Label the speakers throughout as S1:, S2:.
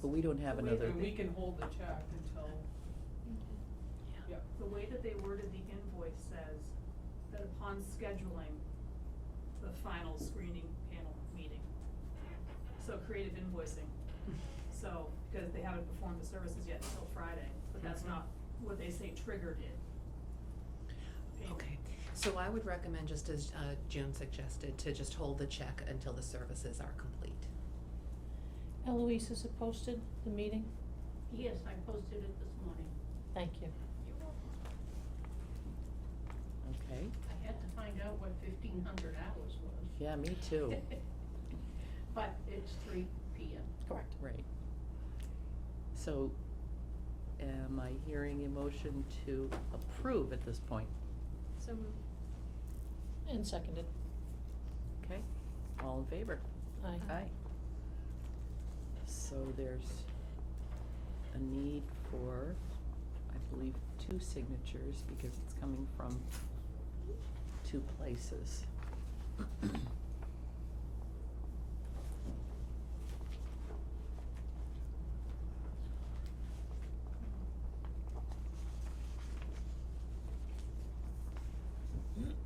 S1: But we don't have
S2: So we-
S1: another
S2: and We
S1: thing.
S2: can hold the check until, yeah.
S3: The way that they worded the invoice says that upon scheduling the final screening panel meeting. So creative invoicing, so, because they haven't performed the services yet until Friday, but that's
S2: Mm-hmm.
S1: Mhm.
S3: not what they say triggered it. Payment.
S4: Okay, so I would recommend, just as uh, June suggested, to just hold the check until the services are complete.
S5: Eloise, is it posted, the meeting?
S6: Yes, I posted it this morning.
S5: Thank you.
S1: Okay,
S6: I had to find out what fifteen hundred hours was.
S1: yeah, me too,
S6: But it's three P M.
S5: Correct.
S1: right. So, am I hearing a motion to approve at this point?
S3: So moved.
S5: And seconded.
S1: Okay, all in favor?
S5: Aye.
S1: Aye. So there's a need for, I believe, two signatures because it's coming from two places.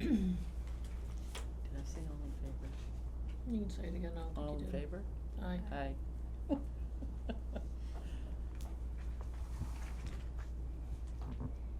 S1: Did I say all in favor?
S5: You can say it again, I
S1: All
S5: don't
S1: in
S5: think you did.
S1: favor?
S5: Aye.
S1: Aye.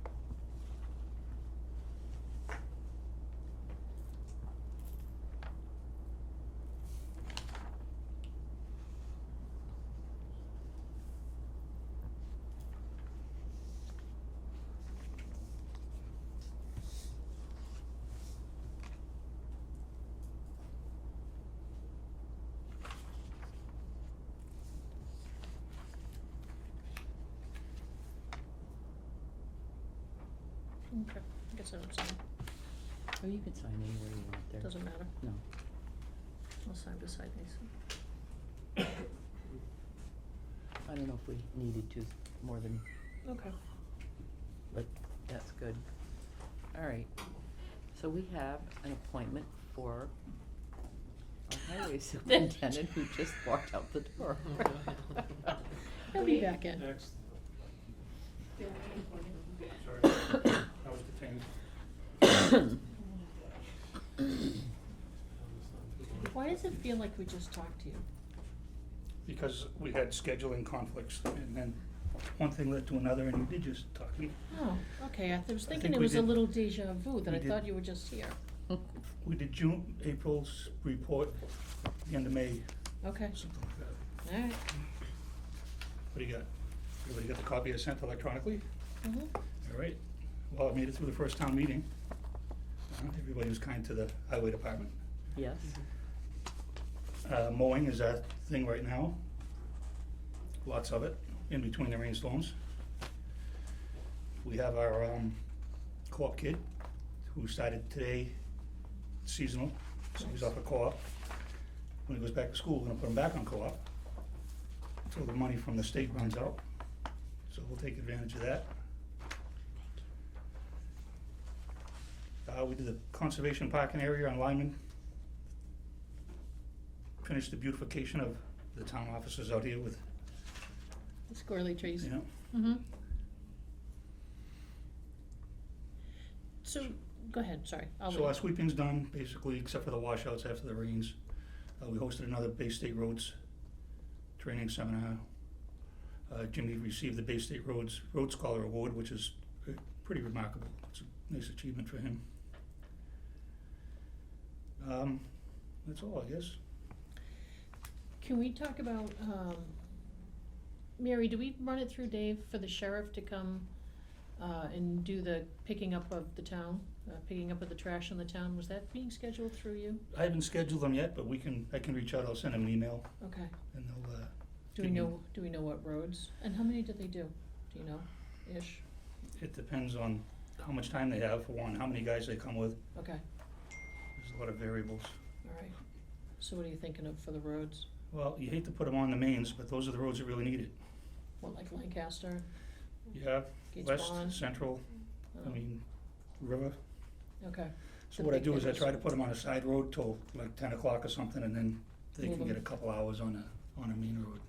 S5: Okay, I guess I don't sign,
S1: Oh, you can sign anywhere you want there.
S5: doesn't matter,
S1: No.
S5: I'll sign beside these.
S1: I don't know if we needed to more than,
S5: Okay.
S1: but that's good. All right. So we have an appointment for our highway superintendent who just walked out the door.
S5: He'll be back in.
S7: Next,
S6: They're waiting for you.
S7: sorry, I was detained.
S5: Why does it feel like we just talked to you?
S7: Because we had scheduling conflicts, and then one thing led to another, and you did just talk to me.
S5: Oh, okay, I th- was
S7: I
S5: thinking
S7: think
S5: it
S7: we
S5: was a
S7: did-
S5: little deja vu, that
S7: we
S5: I
S7: did-
S5: thought you were just here.
S7: We did June, April's report, the end of May,
S5: Okay,
S7: something like that.
S5: all right.
S7: What do you got? Everybody got the copy I sent electronically?
S5: Mhm.
S7: All right. Well, I made it through the first town meeting. Uh, Everybody was kind to the highway department.
S1: Yes,
S7: Uh, mowing is our thing right now. Lots of it, in between the rainstorms. We have our, um, co-op kid, who started today seasonal, so he's off of co-op. When he goes back to school, we're gonna put him back on co-op, until the money from the state runs out, so we'll take advantage of that. Uh, we did the conservation parking area on Lyman, finished the beautification of the town offices out here with,
S5: The squirrely trees.
S7: you know,
S5: Mm-hmm. So, go ahead, sorry, I'll
S7: So our
S5: wait.
S7: sweeping's done, basically, except for the washouts after the rains. Uh, we hosted another Bay State Roads training seminar. Uh, Jimmy received the Bay State Roads Road Scholar Award, which is uh, pretty remarkable. It's a nice achievement for him. Um, that's all, I guess.
S5: Can we talk about, um, Mary, do we run it through Dave for the sheriff to come, uh, and do the picking up of the town? Uh, picking up of the trash in the town, was that being scheduled through you?
S7: I haven't scheduled them yet, but we can, I can reach out, I'll send him an email
S5: Okay,
S7: and they'll, uh,
S5: do we
S7: Didn't-
S5: know, do we know what roads, and how many did they do, do you know, ish?
S7: it depends on how much time they have, for one, how many guys they come with.
S5: Okay,
S7: There's a lot of variables.
S5: alright, so what are you thinking of for the roads,
S7: Well, you hate to put them on the mains, but those are the roads that really need it.
S5: what, like Lancaster,
S7: Yeah,
S5: Gates
S7: west,
S5: Pond?
S7: central, I
S5: Um,
S7: mean, river.
S5: Okay,
S7: So
S5: The
S7: what I
S5: big
S7: do is I
S5: hitters.
S7: try to put them on a side road till like ten o'clock or something, and then they
S5: Move
S7: can
S5: 'em.
S7: get a couple hours on a, on a main road.